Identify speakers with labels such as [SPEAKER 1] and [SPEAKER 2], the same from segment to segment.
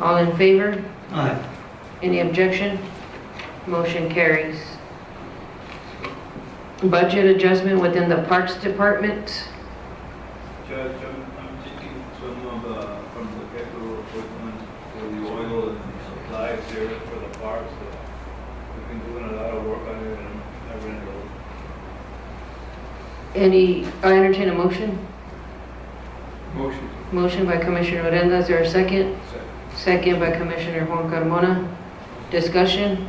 [SPEAKER 1] All in favor?
[SPEAKER 2] Aye.
[SPEAKER 1] Any objection? Motion carries. Budget adjustment within the Parks Department.
[SPEAKER 3] Judge, I'm, I'm taking some of, uh, from the capital equipment for the oil and supplies here for the parks. so We've been doing a lot of work on it and I ran it over.
[SPEAKER 1] Any, I entertain a motion.
[SPEAKER 3] Motion.
[SPEAKER 1] Motion by Commissioner Odena, is there a second?
[SPEAKER 3] Second.
[SPEAKER 1] Second by Commissioner Juan Carmona. Discussion?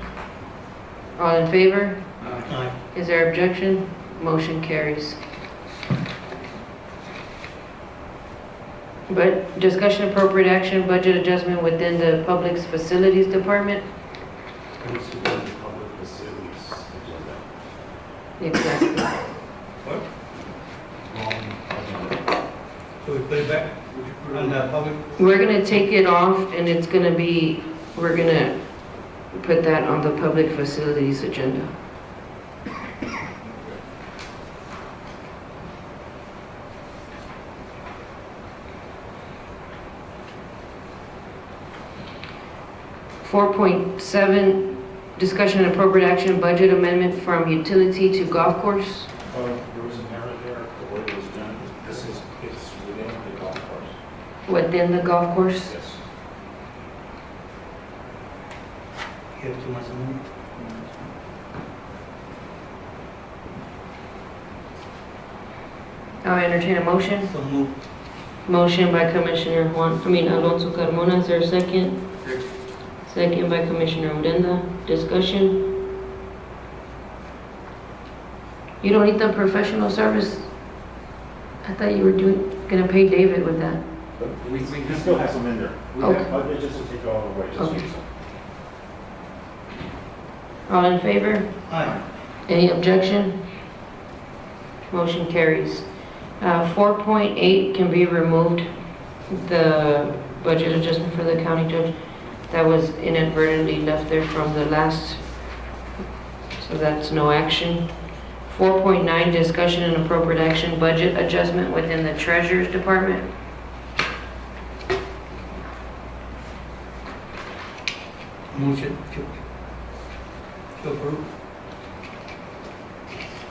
[SPEAKER 1] All in favor?
[SPEAKER 2] Aye.
[SPEAKER 1] Is there objection? Motion carries. But discussion appropriate action, budget adjustment within the Public Facilities Department?
[SPEAKER 4] Comes to the public facilities agenda.
[SPEAKER 1] Exactly.
[SPEAKER 4] Wrong agenda.
[SPEAKER 2] So we put it back
[SPEAKER 3] Would you put
[SPEAKER 2] on
[SPEAKER 3] on
[SPEAKER 2] the
[SPEAKER 3] that?
[SPEAKER 2] public?
[SPEAKER 1] We're gonna take it off and it's gonna be, we're gonna put that on the public facilities agenda. Four point seven, discussion and appropriate action, budget amendment from utility to golf course.
[SPEAKER 4] Well, there was an error there, the way it was done, this is, it's within the golf course.
[SPEAKER 1] Within the golf course,
[SPEAKER 4] Yes.
[SPEAKER 2] You have too much money.
[SPEAKER 3] Mm-hmm.
[SPEAKER 1] I'll entertain a motion.
[SPEAKER 2] So move.
[SPEAKER 1] Motion by Commissioner Juan, I mean Alonso Carmona, is there a second?
[SPEAKER 3] Second.
[SPEAKER 1] Second by Commissioner Odena, discussion? You don't need the professional service? I thought you were doing, gonna pay David with that.
[SPEAKER 4] But we, we still have some in there. We
[SPEAKER 1] Okay.
[SPEAKER 4] have, but they just to take it all away, just
[SPEAKER 1] Okay.
[SPEAKER 4] use them.
[SPEAKER 1] All in favor?
[SPEAKER 2] Aye.
[SPEAKER 1] Any objection? Motion carries. Uh, 4.8 can be removed, the budget adjustment for the county judge. That was inadvertently left there from the last, so that's no action. 4.9, discussion and appropriate action, budget adjustment within the treasurer's department.
[SPEAKER 2] Motion to to approve.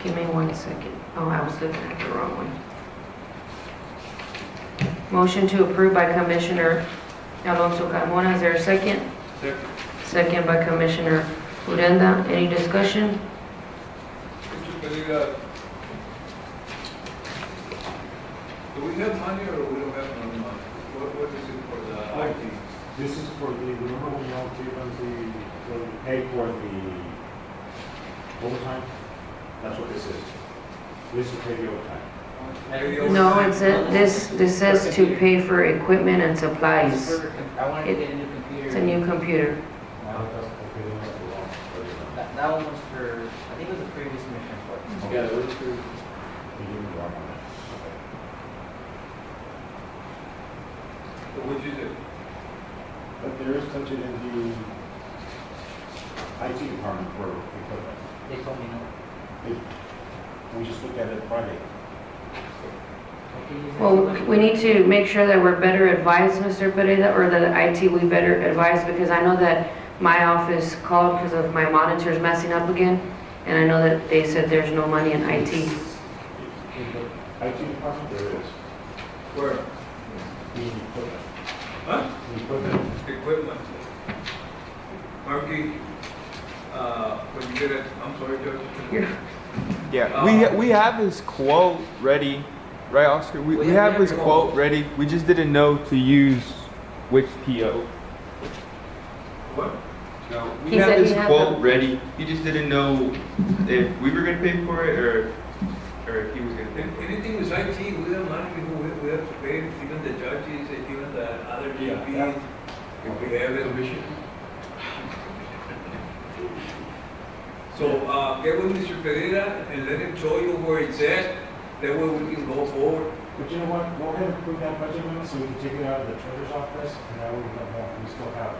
[SPEAKER 1] Give me one second. Oh, I was looking at the wrong one. Motion to approve by Commissioner Alonso Carmona. Is there a second?
[SPEAKER 3] Second.
[SPEAKER 1] Second by Commissioner Uranda. Any discussion?
[SPEAKER 3] Would you believe that? Do we have money or we don't have no money? What, what is it for the
[SPEAKER 4] I-
[SPEAKER 3] IT?
[SPEAKER 4] This is for the, remember when y'all gave us the, when we paid for the overtime? That's what this is. This is pay the overtime.
[SPEAKER 5] Mayor,
[SPEAKER 1] No, it says, this, this says to pay for equipment and supplies.
[SPEAKER 5] I wanted to get a new computer.
[SPEAKER 1] It's a new computer.
[SPEAKER 4] Now, that's, okay, that's the wrong, version.
[SPEAKER 5] That, that one was for, I think it was the previous commissioner for.
[SPEAKER 4] Yeah, it was true. You did the wrong on that.
[SPEAKER 3] What would you do?
[SPEAKER 4] Okay. But there is touching in the IT department for equipment.
[SPEAKER 5] They told me no.
[SPEAKER 4] We just looked at it Friday.
[SPEAKER 5] I can use that
[SPEAKER 1] Well,
[SPEAKER 5] computer.
[SPEAKER 1] we need to make sure that we're better advised, Mr. Pereira, or that IT, we better advised, because I know that my office called because of my monitors messing up again, and I know that they said there's no money in IT.
[SPEAKER 4] In the IT department, there is.
[SPEAKER 3] Where?
[SPEAKER 4] The equipment.
[SPEAKER 3] Huh?
[SPEAKER 4] The equipment.
[SPEAKER 3] equipment. Marky, uh, when you get it, I'm sorry, Judge.
[SPEAKER 6] Yeah, we we have his quote ready, right, Oscar? We, we have his quote ready. We just didn't know to use which PO.
[SPEAKER 3] What?
[SPEAKER 6] No, we
[SPEAKER 1] He
[SPEAKER 6] have
[SPEAKER 1] said
[SPEAKER 6] his
[SPEAKER 1] he had
[SPEAKER 6] quote
[SPEAKER 1] them.
[SPEAKER 6] ready. He just didn't know if we were gonna pay for it or or if he was gonna pay
[SPEAKER 3] An-
[SPEAKER 6] for it.
[SPEAKER 3] Anything with IT, we don't mind, we, we- we have to pay, even the judges, and even the other
[SPEAKER 4] Yeah,
[SPEAKER 3] GPs. If we have it. So, uh, get with Mr. Pereira and let him show you where it's at, that way we can go forward.
[SPEAKER 4] But you know what, go ahead and approve that budget amendment so we can take it out of the treasurer's office and that way we don't have, we still have.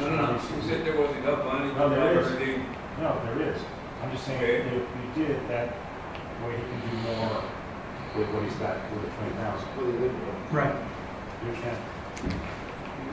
[SPEAKER 3] No, no, no, you said there was enough money to
[SPEAKER 4] No,
[SPEAKER 3] cover
[SPEAKER 4] there is.
[SPEAKER 3] everything.
[SPEAKER 4] No, there is. I'm just saying,
[SPEAKER 3] Okay.
[SPEAKER 4] if we did, that way he can do more with what he's got, with the twenty thousand.
[SPEAKER 2] Right.
[SPEAKER 4] You can.